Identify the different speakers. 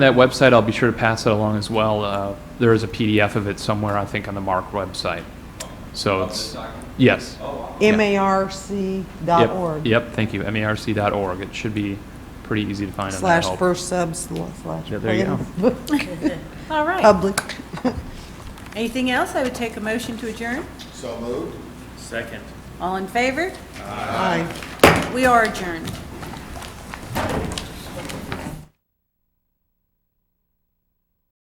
Speaker 1: That website, I'll be sure to pass it along as well. Uh, There is a PDF of it somewhere, I think, on the MARC website. So it's, yes.
Speaker 2: M-A-R-C dot
Speaker 1: Yep.
Speaker 2: org.
Speaker 1: Yep, thank you, E marc.org. It should be pretty easy to find on that
Speaker 2: Slash
Speaker 1: help.
Speaker 2: first sub slash.
Speaker 1: Yeah, there you go.
Speaker 3: All right.
Speaker 2: Public.
Speaker 3: Anything else? I would take a motion to adjourn.
Speaker 4: So moved.
Speaker 3: All in favor?
Speaker 2: Aye.
Speaker 3: We are adjourned.